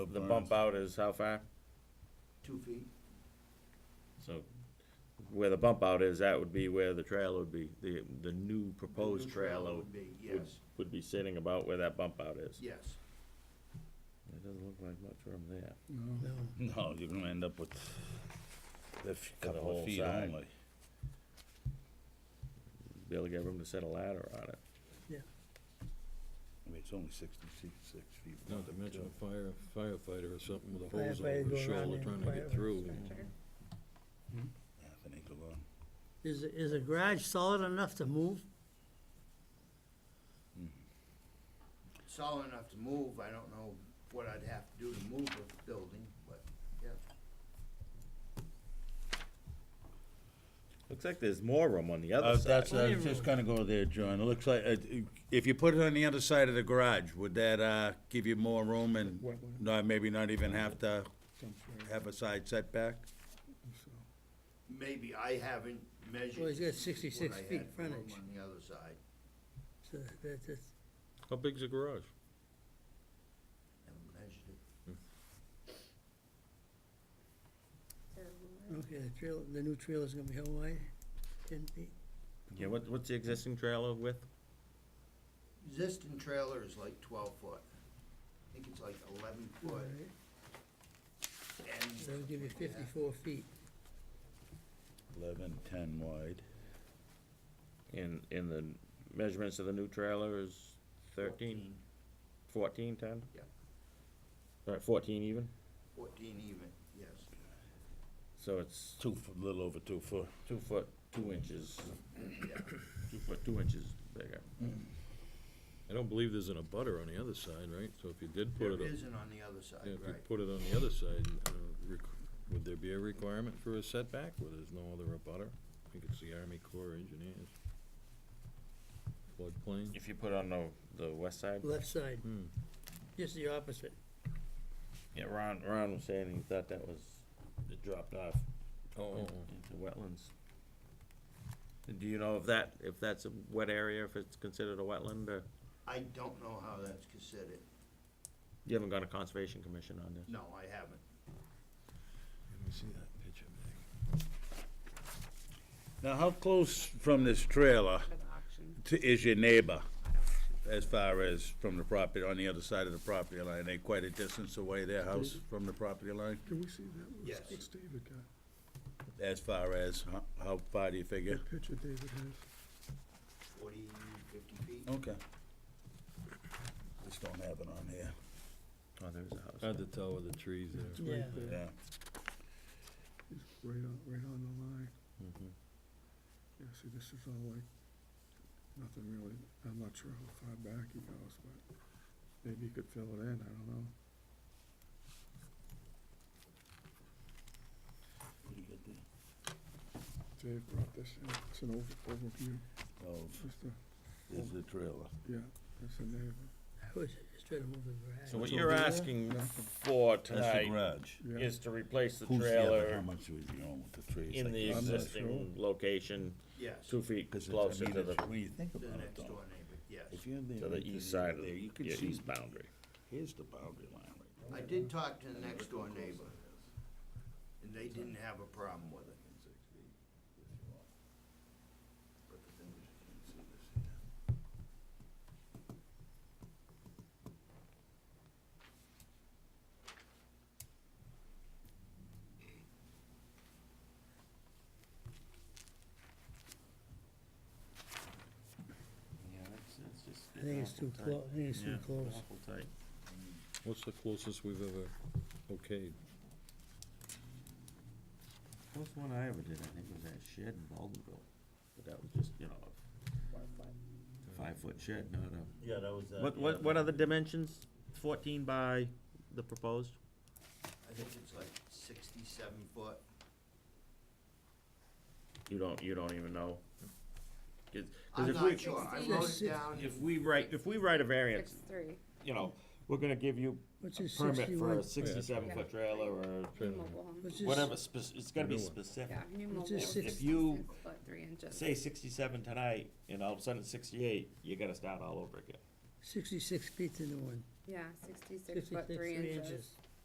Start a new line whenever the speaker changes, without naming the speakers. The bump out is how far?
two feet.
So where the bump out is, that would be where the trailer would be, the, the new proposed
The new trailer
trailer
would be,
would,
yes.
would be sitting about where that bump out is.
Yes.
It doesn't look like much room there.
No, you're gonna end up with a f- couple
whole
of feet
side.
only.
Be able to get room to set a ladder on it.
I mean, it's only sixty-six feet.
Not to mention a fire, firefighter or something with a hose
Firefighter
over
go
his
around
shoulder
and
trying to
fire
get through.
extinguisher.
Half an acre long.
Is, is a garage solid enough to move?
Solid enough to move, I don't know what I'd have to do to move the building, but, yeah.
Looks like there's more room on the other
Uh,
side.
that's, I was just gonna go there, John. It looks like, uh, if you put it on the other side of the garage, would that, uh, give you more room and not, maybe not even have to have a side setback?
Maybe I haven't measured.
Well, he's got 66
what I
feet
had for room
frontage.
On the other side,
So that- that's-
How big's the garage?
haven't measured it.
okay, the trail, the new trailer's gonna be how wide? Ten feet?
Yeah, what, what's the existing trailer width?
Existing trailer is like twelve foot. I think it's like eleven foot
Alright,
and.
That'll give you fifty-four feet.
Eleven, ten wide.
And, and the measurements of the new trailer is thirteen, fourteen ten?
Yeah.
All right, fourteen even?
Fourteen even, yes.
So it's
Two, f- a little over two foot.
two foot, two inches,
Yeah.
two foot, two inches bigger.
I don't believe there's an abutter on the other side, right? So if you did put
There
it, on-
isn't on the other
yeah,
side,
if you
right?
put it on the other side, uh, requ- would there be a requirement for a setback where there's no other abutter? I think it's the Army Corps of Engineers. Floodplain?
If you put on the, the west side?
Left side,
Hmm.
just the opposite.
Yeah, Ron, Ron was saying he thought that was, it dropped off
Oh, oh,
into wetlands. And Do you know if that, if that's a wet area, if it's considered a wetland, or,
I don't know how that's considered.
you haven't got a conservation commission on this?
No, I haven't.
let me see that picture, Meg.
Now, how close from this trailer
An auction,
to, is your neighbor?
an auction.
As far as from the property, on the other side of the property line, they quite a distance away, their house from the property line?
Can we see that? What's-
Yes.
What's David got?
As far as, how, how far do you figure?
That picture David has.
Forty, fifty feet.
Oh.
Okay. Just don't have it on here,
Oh, there's a house.
Hard to tell with the trees
It's
there.
Yeah.
right there.
yeah.
It's right on, right on the line.
Mhm.
Yeah, see, this is all like, nothing really, I'm not sure how far back he goes, but maybe he could fill it in, I don't know. Dave brought this in, it's an over- overview,
Oh,
just a,
there's the trailer.
yeah, it's a neighbor,
I was just trying to move the garage.
So what you're asking for
That's the
tonight
garage.
yeah.
is to replace the
Who's the other, how
trailer
much was he on with the trees?
in the
I'm not
existing location,
Yes,
two feet
Because it's,
closer
I mean,
to the,
it's, when you think
the
about it
next
though,
door neighbor, yes.
if you're there.
to the
and
east
you're
side of
there,
the,
You can
yeah,
see,
east boundary.
here's the boundary line right
I did talk to the next door neighbor, and they didn't have a problem with it.
Yeah, that's, that's just.
I think it's too close, I think it's too close.
What's the closest we've ever okayed?
First one I ever did, I think, was that shed in Baldwinville, but that was just, you know, a five-foot shed, not a.
Yeah, that was.
What, what, what are the dimensions? Fourteen by the proposed?
I think it's like sixty-seven foot.
You don't, you don't even know? 'Cause- 'cause
I'm
if we-
not sure, I wrote it down.
If we write, if we write a variance,
Six, three.
you know, we're gonna give you
What's
a
his
permit for
sixty-one,
a sixty-seven foot trailer or
New mobile home.
what's his,
whatever, spec- it's gotta be
New one.
specific.
Yeah, new mobile.
Which is
home,
six-
If you-
66 Foot, three inches.
Say sixty-seven tonight, and all of a sudden it's sixty-eight, you gotta start all over again.
sixty-six feet to the one.
Yeah, sixty-six
66
foot, three inches.